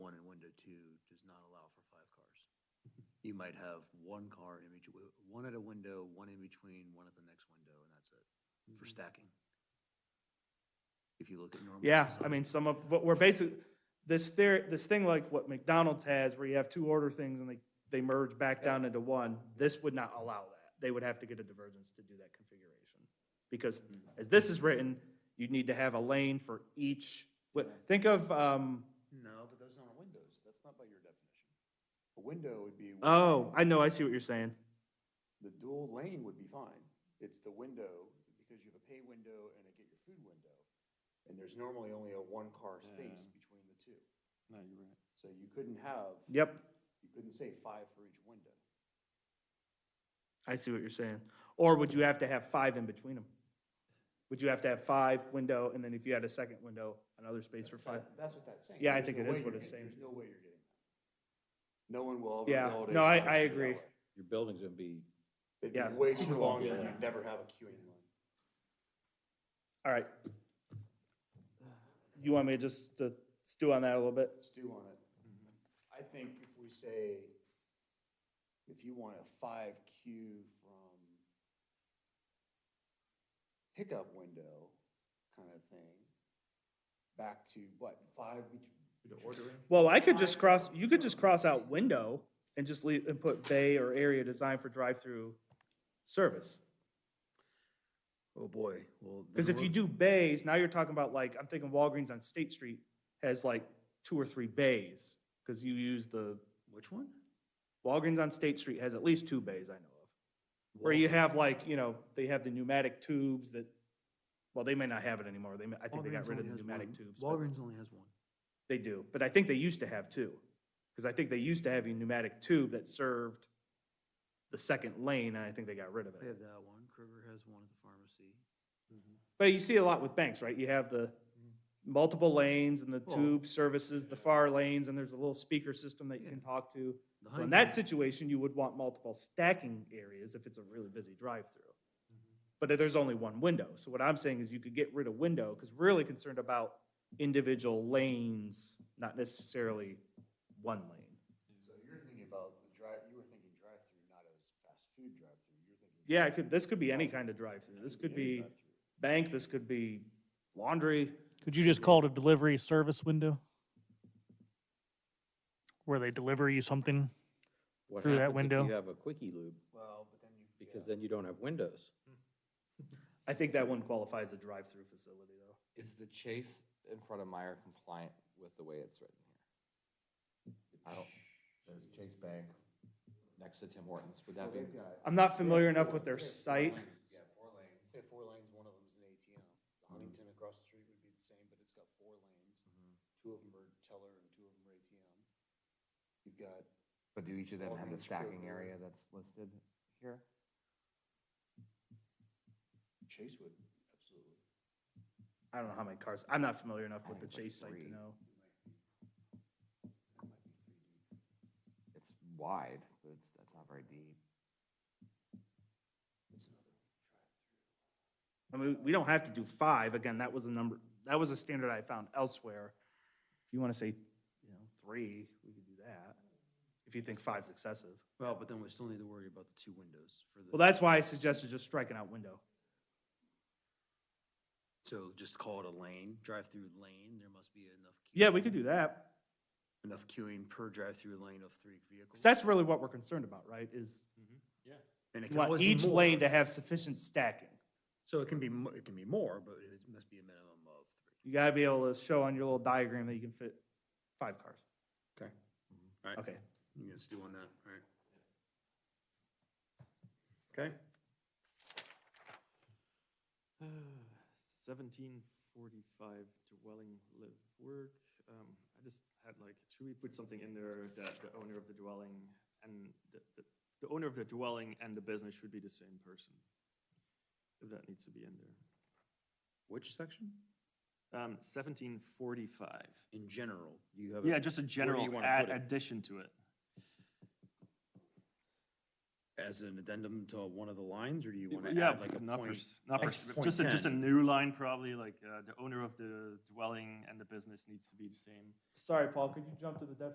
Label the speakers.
Speaker 1: for five cars.
Speaker 2: Mm-hmm.
Speaker 1: You might have one car in between, one at a window, one in between, one at the next window, and that's it
Speaker 2: Mm-hmm.
Speaker 1: for stacking. If you look at normal.
Speaker 2: Yeah, I
Speaker 1: design.
Speaker 2: mean, some of, but we're basically, this theory, this thing like what McDonald's has, where you have two order things and they, they merge back down into one, this would not allow that. They would have to get a divergence to do that configuration. Because as this is written, you'd need to have a lane for each, what, think of, um,
Speaker 1: No, but those aren't windows. That's not by your definition. A window would be.
Speaker 2: oh, I know, I see what you're saying.
Speaker 1: The dual lane would be fine. It's the window, because you have a pay window and a get your food window. And there's normally only a one-car space between the two.
Speaker 3: No, you're right.
Speaker 1: So you couldn't have,
Speaker 2: Yep,
Speaker 1: you couldn't say five for each window.
Speaker 2: I see what you're saying. Or would you have to have five in between them? Would you have to have five window, and then if you had a second window, another space for five?
Speaker 1: That- That's what that's saying.
Speaker 2: Yeah, I
Speaker 1: There's
Speaker 2: think
Speaker 1: no
Speaker 2: it is
Speaker 1: way
Speaker 2: what
Speaker 1: you're
Speaker 2: it's
Speaker 1: getting-
Speaker 2: saying.
Speaker 1: There's no way you're getting that. No one will ever
Speaker 2: Yeah,
Speaker 1: build a.
Speaker 2: no, I-
Speaker 1: drive-through
Speaker 2: I
Speaker 1: that
Speaker 2: agree.
Speaker 1: way.
Speaker 3: Your building's gonna be,
Speaker 1: It'd
Speaker 2: Yeah.
Speaker 1: be way too long,
Speaker 3: Yeah.
Speaker 1: and you'd never have a queuing line.
Speaker 2: All right. You want me to just uh, stew on that a little bit?
Speaker 1: stew on it. I think if we say, if you want a five Q from pickup window kind of thing, back to what, five? Ordering?
Speaker 2: Well, I could just cross, you could just cross out window and just leave, and put bay or area designed for drive-through service.
Speaker 1: Oh, boy, well.
Speaker 2: Because if you do bays, now you're talking about like, I'm thinking Walgreens on State Street has like two or three bays. Because you use the,
Speaker 1: Which one?
Speaker 2: Walgreens on State Street has at least two bays I know of. Where you have like, you know, they have the pneumatic tubes that, well, they may not have it anymore. They, may- I think they got rid of the pneumatic tubes. but-
Speaker 1: Walgreens only has one.
Speaker 2: They do, but I think they used to have two. Because I think they used to have a pneumatic tube that served the second lane, and I think they got rid of
Speaker 1: They
Speaker 2: it.
Speaker 1: have that one. Kroger has one at the pharmacy.
Speaker 2: But you see a lot with banks, right? You have the multiple lanes and the
Speaker 1: Well-
Speaker 2: tube services the far lanes, and there's a little speaker system that you can talk to.
Speaker 1: The
Speaker 2: So in
Speaker 1: Heinz
Speaker 2: that
Speaker 1: one-
Speaker 2: situation, you would want multiple stacking areas if it's a really busy drive-through. But there's only one window. So what I'm saying is you could get rid of window, because we're really concerned about individual lanes, not necessarily one lane.
Speaker 1: So you're thinking about the drive, you were thinking drive-through, not as fast food drive-through. You're thinking.
Speaker 2: Yeah, it could, this could be any kind of drive-through. This could be bank, this could be laundry.
Speaker 4: Could you just call it a delivery service window? Where they deliver you something?
Speaker 3: what
Speaker 4: Through that
Speaker 3: happens if
Speaker 4: window.
Speaker 3: you have a quickie loop?
Speaker 1: Well, but then you.
Speaker 3: Because then you don't have windows.
Speaker 2: I think that one qualifies a drive-through facility, though.
Speaker 5: Is the chase in front of Meyer compliant with the way it's written here? I don't, there's Chase Bank next to Tim Hortons, would
Speaker 1: Oh,
Speaker 5: that be?
Speaker 2: I'm not familiar enough with their site.
Speaker 1: Yeah, four lanes. Mm-hmm. They have four lanes, one of them's an ATM. Huntington across the street would be the same, but it's got four lanes. Two of them are teller and two of them are ATM. You've got,
Speaker 5: But do each of them have
Speaker 1: Walgreens,
Speaker 5: the stacking
Speaker 1: Kroger.
Speaker 5: area that's listed here?
Speaker 1: Chase would, absolutely.
Speaker 2: I don't know how many cars, I'm not familiar enough
Speaker 5: I
Speaker 2: with the
Speaker 5: think
Speaker 2: Chase
Speaker 5: it's
Speaker 2: site
Speaker 5: like
Speaker 2: to
Speaker 5: three.
Speaker 2: know.
Speaker 5: It's wide, but it's, that's not very deep.
Speaker 1: It's another drive-through.
Speaker 2: I mean, we don't have to do five, again, that was a number, that was a standard I found elsewhere. If you want to say, you know, three, we could do that, if you think five's excessive.
Speaker 1: Well, but then we still need to worry about the two windows for the.
Speaker 2: Well, that's why I suggested just striking out window.
Speaker 1: So just call it a lane, drive-through lane. There must be enough.
Speaker 2: Yeah, we could do that.
Speaker 1: Enough queuing per drive-through lane of three vehicles.
Speaker 2: 'Cause that's really what we're concerned about, right, is
Speaker 1: And it
Speaker 2: you
Speaker 1: can always
Speaker 2: want
Speaker 1: be
Speaker 2: each lane
Speaker 1: more.
Speaker 2: to have sufficient stacking.
Speaker 1: So it can be, mo- it can be more, but it must be a minimum of three.
Speaker 2: You gotta be able to show on your little diagram that you can fit five cars.
Speaker 1: Okay. Mm-hmm. All right.
Speaker 2: Okay,
Speaker 1: You guys do on that, all right? Okay,
Speaker 6: Seventeen forty-five dwelling live work. Um, I just had like, should we put something in there that the owner of the dwelling and the, the, the owner of the dwelling and the business should be the same person? If that needs to be in there.
Speaker 1: which section?
Speaker 6: Um, seventeen forty-five.
Speaker 1: In general, do you have? a-
Speaker 6: Yeah, just a general
Speaker 1: wanna
Speaker 6: add
Speaker 1: put it?
Speaker 6: addition to it.
Speaker 1: As an addendum to one of the lines, or do you want to
Speaker 6: Yeah,
Speaker 1: add like a
Speaker 6: not
Speaker 1: point?
Speaker 6: pers- Not
Speaker 1: like
Speaker 6: pers-
Speaker 1: point
Speaker 6: just a, just a
Speaker 1: 10?
Speaker 6: new line probably, like, uh, the owner of the dwelling and the business needs to be the same.
Speaker 2: sorry, Paul, could you jump to the definition